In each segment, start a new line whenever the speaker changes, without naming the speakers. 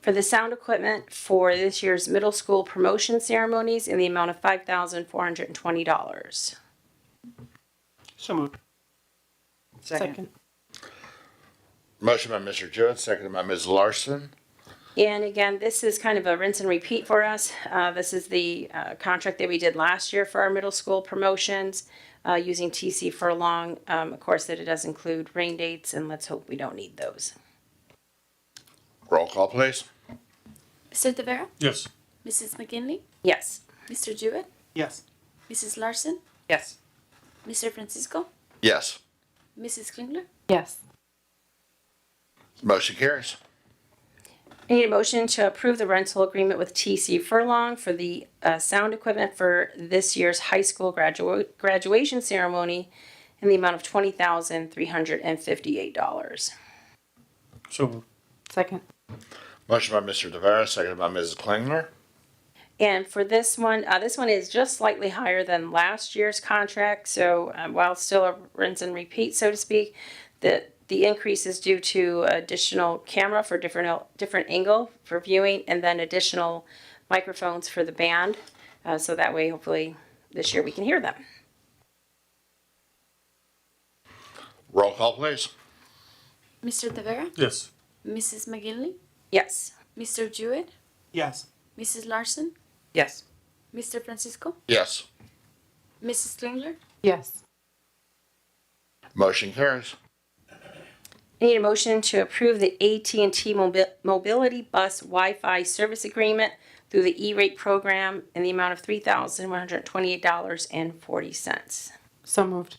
for the sound equipment for this year's middle school promotion ceremonies in the amount of five thousand four hundred and twenty dollars.
So moved.
Second.
Motion by Mr. Jewett, seconded by Ms. Larson.
And again, this is kind of a rinse and repeat for us. Uh, this is the, uh, contract that we did last year for our middle school promotions, uh, using TC Furlong. Um, of course, that it does include rain dates and let's hope we don't need those.
Roll call, please.
Mr. Tavera?
Yes.
Mrs. McGinley?
Yes.
Mr. Jewett?
Yes.
Mrs. Larson?
Yes.
Mr. Francisco?
Yes.
Mrs. Klingler?
Yes.
Motion carries.
I need a motion to approve the rental agreement with TC Furlong for the uh, sound equipment for this year's high school gradua- graduation ceremony in the amount of $20,358.
So moved.
Second.
Motion by Mr. Tavera, seconded by Mrs. Klingler.
And for this one, uh, this one is just slightly higher than last year's contract. So uh, while still a rinse and repeat, so to speak, the the increase is due to additional camera for different el- different angle for viewing, and then additional microphones for the band. Uh, so that way, hopefully, this year we can hear them.
Roll call, please.
Mr. Tavera?
Yes.
Mrs. McGinley?
Yes.
Mr. Jewett?
Yes.
Mrs. Larson?
Yes.
Mr. Francisco?
Yes.
Mrs. Klingler?
Yes.
Motion carries.
I need a motion to approve the AT&T mobi- Mobility Bus Wi-Fi service agreement through the E-rate program in the amount of three thousand one hundred twenty-eight dollars and forty cents.
So moved.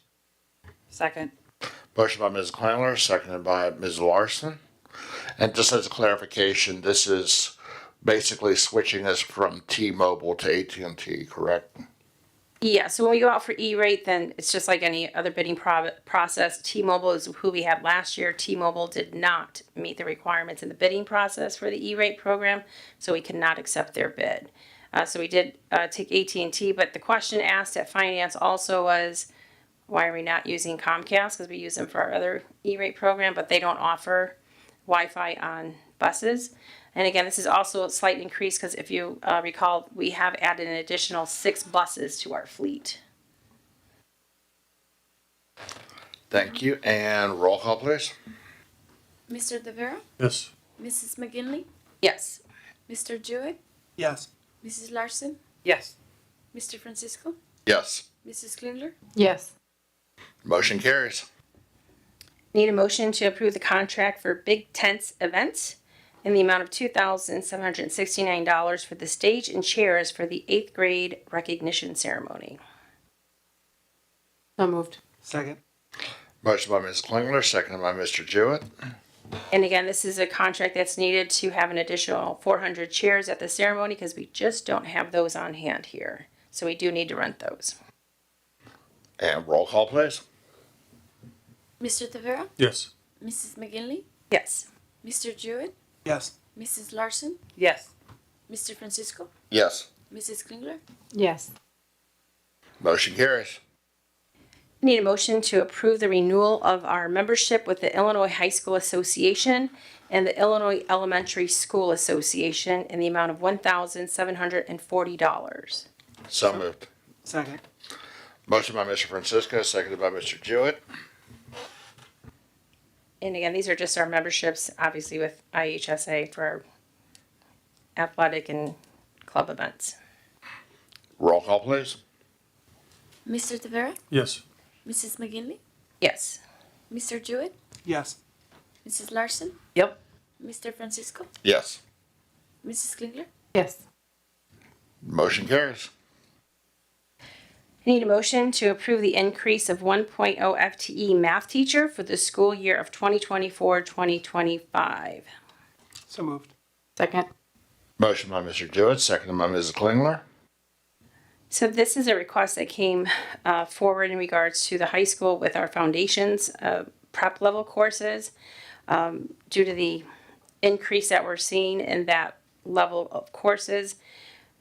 Second.
Motion by Ms. Klingler, seconded by Ms. Larson. And just as a clarification, this is basically switching us from T-Mobile to AT&T, correct?
Yeah, so when we go out for E-rate, then it's just like any other bidding pro- process. T-Mobile is who we had last year. T-Mobile did not meet the requirements in the bidding process for the E-rate program, so we could not accept their bid. Uh, so we did uh, take AT&T, but the question asked at finance also was, why are we not using Comcast? Because we use them for our other E-rate program, but they don't offer Wi-Fi on buses. And again, this is also a slight increase because if you uh, recall, we have added an additional six buses to our fleet.
Thank you. And roll call, please.
Mr. Tavera?
Yes.
Mrs. McGinley?
Yes.
Mr. Jewett?
Yes.
Mrs. Larson?
Yes.
Mr. Francisco?
Yes.
Mrs. Klingler?
Yes.
Motion carries.
Need a motion to approve the contract for Big Tents Events in the amount of two thousand seven hundred and sixty-nine dollars for the stage and chairs for the eighth grade recognition ceremony.
So moved.
Second.
Motion by Ms. Klingler, seconded by Mr. Jewett.
And again, this is a contract that's needed to have an additional four hundred chairs at the ceremony because we just don't have those on hand here. So we do need to rent those.
And roll call, please.
Mr. Tavera?
Yes.
Mrs. McGinley?
Yes.
Mr. Jewett?
Yes.
Mrs. Larson?
Yes.
Mr. Francisco?
Yes.
Mrs. Klingler?
Yes.
Motion carries.
Need a motion to approve the renewal of our membership with the Illinois High School Association and the Illinois Elementary School Association in the amount of one thousand seven hundred and forty dollars.
So moved.
Second.
Motion by Mr. Francisco, seconded by Mr. Jewett.
And again, these are just our memberships, obviously with IHSA for our athletic and club events.
Roll call, please.
Mr. Tavera?
Yes.
Mrs. McGinley?
Yes.
Mr. Jewett?
Yes.
Mrs. Larson?
Yep.
Mr. Francisco?
Yes.
Mrs. Klingler?
Yes.
Motion carries.
I Need a motion to approve the increase of 1.0 FTE E math teacher for the school year of 2024-2025.
So moved.
Second.
Motion by Mr. Jewett, seconded by Mrs. Klingler.
So this is a request that came uh, forward in regards to the high school with our foundations uh, prep level courses um, due to the increase that we're seeing in that level of courses.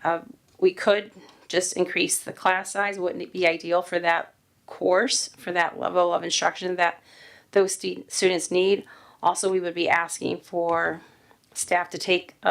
uh, we could just increase the class size. Wouldn't it be ideal for that course, for that level of instruction that those stu- students need? Also, we would be asking for staff to take a